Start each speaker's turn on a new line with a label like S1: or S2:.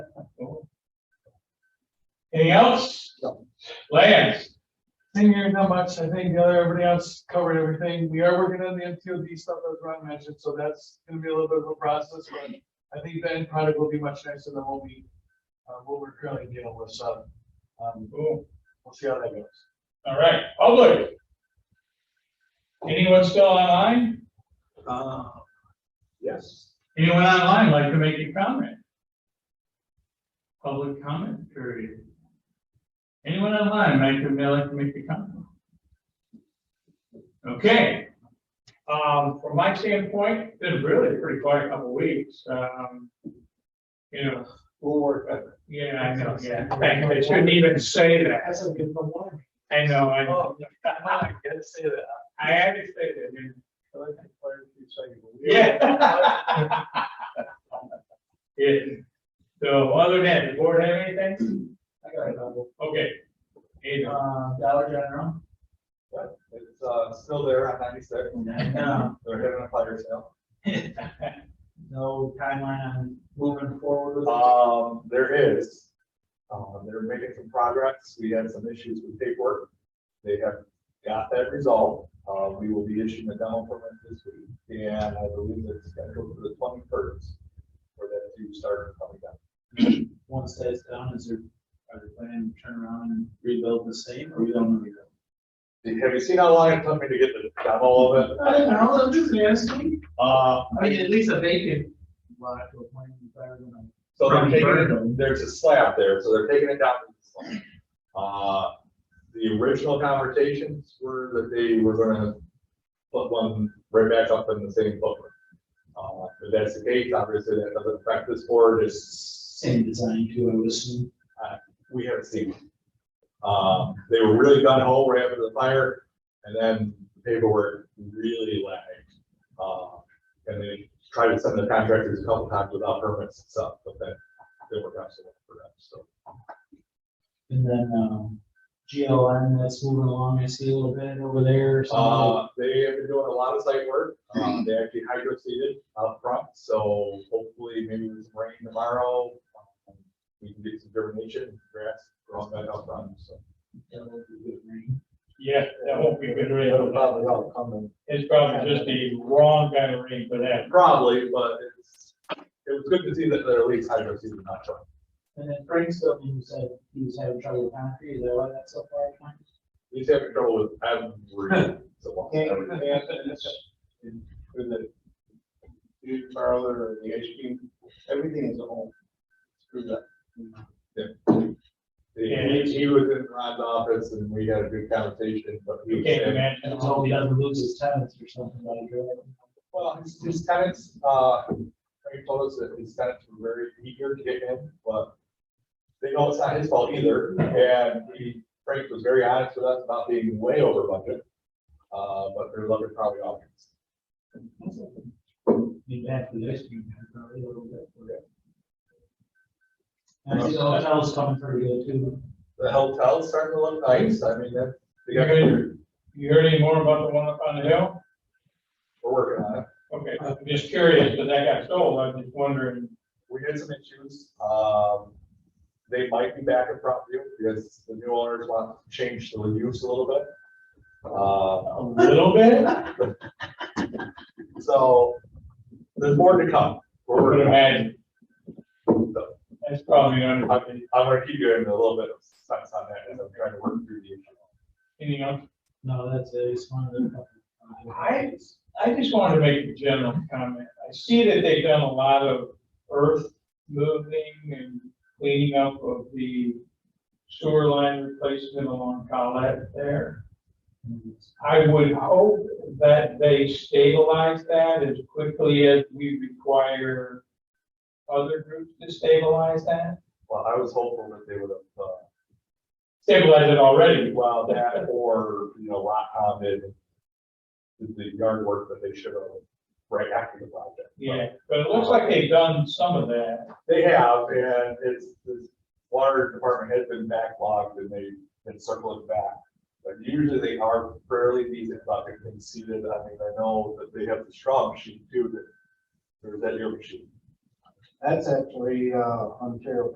S1: Anything else? Lance? Thing here, not much. I think uh, everybody else covered everything. We are working on the MTOD stuff that Ron mentioned, so that's gonna be a little bit of a process, but I think the end product will be much nicer than what we, uh, what we're currently dealing with, so. Um, we'll see how that goes. All right, public. Anyone still online?
S2: Uh, Yes.
S1: Anyone online like to make a comment? Public comment period. Anyone online like to, like to make a comment? Okay. Um, from my standpoint, been really pretty quiet couple weeks, um. You know, uh,
S2: We'll work better.
S1: yeah, I know, yeah, I I shouldn't even say that.
S2: That's a good one.
S1: I know, I know.
S2: Oh, I gotta say that.
S1: I had to say that, man.
S2: I like that fire chief saying,
S1: Yeah. Yeah, so other than that, the board have anything?
S2: I got a number.
S1: Okay. Adrian.
S3: Uh, Dollar General,
S2: But It's, uh, still there on ninety-six.
S3: Yeah.
S2: They're having a fire sale.
S3: no timeline on moving forward with it.
S2: Um, there is. Um, they're making some progress. We had some issues with paperwork. They have got that resolved. Uh, we will be issuing a demo permit this week, and I believe it's scheduled for the twenty-first for that to start coming down.
S3: Once that's done, is there, are they planning to turn around and rebuild the same, or we don't know yet?
S2: Have you seen how long it took me to get the demo of it?
S3: I don't know, I'm just asking.
S2: Uh,
S3: I mean, at least a vacant lot to a point if I were gonna.
S2: so they're
S3: From
S2: taking,
S3: Burnham.
S2: there's a slab there, so they're taking it down. to the slab. Uh, the original conversations were that they were gonna put one right back up in the same footprint. Uh, if that's the case, obviously that doesn't affect this board, it's,
S3: Same design too, I would assume.
S2: we haven't seen. it. Um, they were really gun ho right after the fire, and then paperwork really lagged. Uh, and they tried to send the contractors a couple times without permits and stuff, but then they were actually for that, so.
S3: And then, um, GLN that's moving along, I see a little bit over there, so.
S2: Uh, they have been doing a lot of site work, um, they actually hydro seeded out front, so hopefully maybe with some rain tomorrow. um, We can get some germination, grass, growing back out front, so.
S3: that would be good, right?
S1: Yeah, that won't be good rain.
S2: all coming.
S1: It's probably just the wrong kind of rain for that.
S2: Probably, but it's, it was good to see that they're at least hydro seeded, not truck.
S3: And then Frank's building, you said he was having trouble with concrete, is that why that's so far behind?
S2: He's having trouble with every, so.
S4: for the new parlor or the ice cream, everything is all screwed up.
S2: He, he was in Ron's office and we had a good conversation, but he
S1: You
S2: was
S1: can't
S2: saying,
S1: imagine.
S3: And so he doesn't lose his tenants or something like that.
S2: Well, his, his tenants, uh, very close, that his tenants were very eager to get in, but they know it's not his fault either, and he, Frank was very honest with us about being way over budget. Uh, but their love is probably obvious.
S3: Be back to the ice cream man probably a little bit. And I see the hotel's coming pretty good too.
S2: The hotel's starting to look nice, I mean, that, they got,
S1: You heard any more about the one up on the hill?
S2: we're working on it.
S1: Okay, I'm just curious, but that got sold, I'm just wondering.
S2: We had some issues, um, they might be back in front of you, because the new owners want to change the use a little bit. Uh,
S1: A little bit?
S2: So, there's more to come. We're
S1: Would
S2: working on it.
S1: imagine,
S2: So,
S1: that's probably
S2: I'm,
S1: under,
S2: I'm gonna keep you in a little bit of sense on that as I'm trying to work through the issue.
S1: anything else?
S3: No, that's it, it's one of the.
S1: I, I just wanted to make a general comment. I see that they've done a lot of earth moving and cleaning up of the sewer line replacement along Collet there. I would hope that they stabilize that as quickly as we require other groups to stabilize that.
S2: Well, I was hopeful that they would have, uh,
S1: Stabilize it already.
S2: well, that or, you know, lot hounded the yard work that they should have right after the project.
S1: Yeah, but it looks like they've done some of that.
S2: They have, and it's, the water department has been backlogged and they've been circling back. But usually they are fairly decent about getting things seated. I mean, I know that they have the straw machine too, that, or is that your machine?
S4: That's actually, uh, Ontario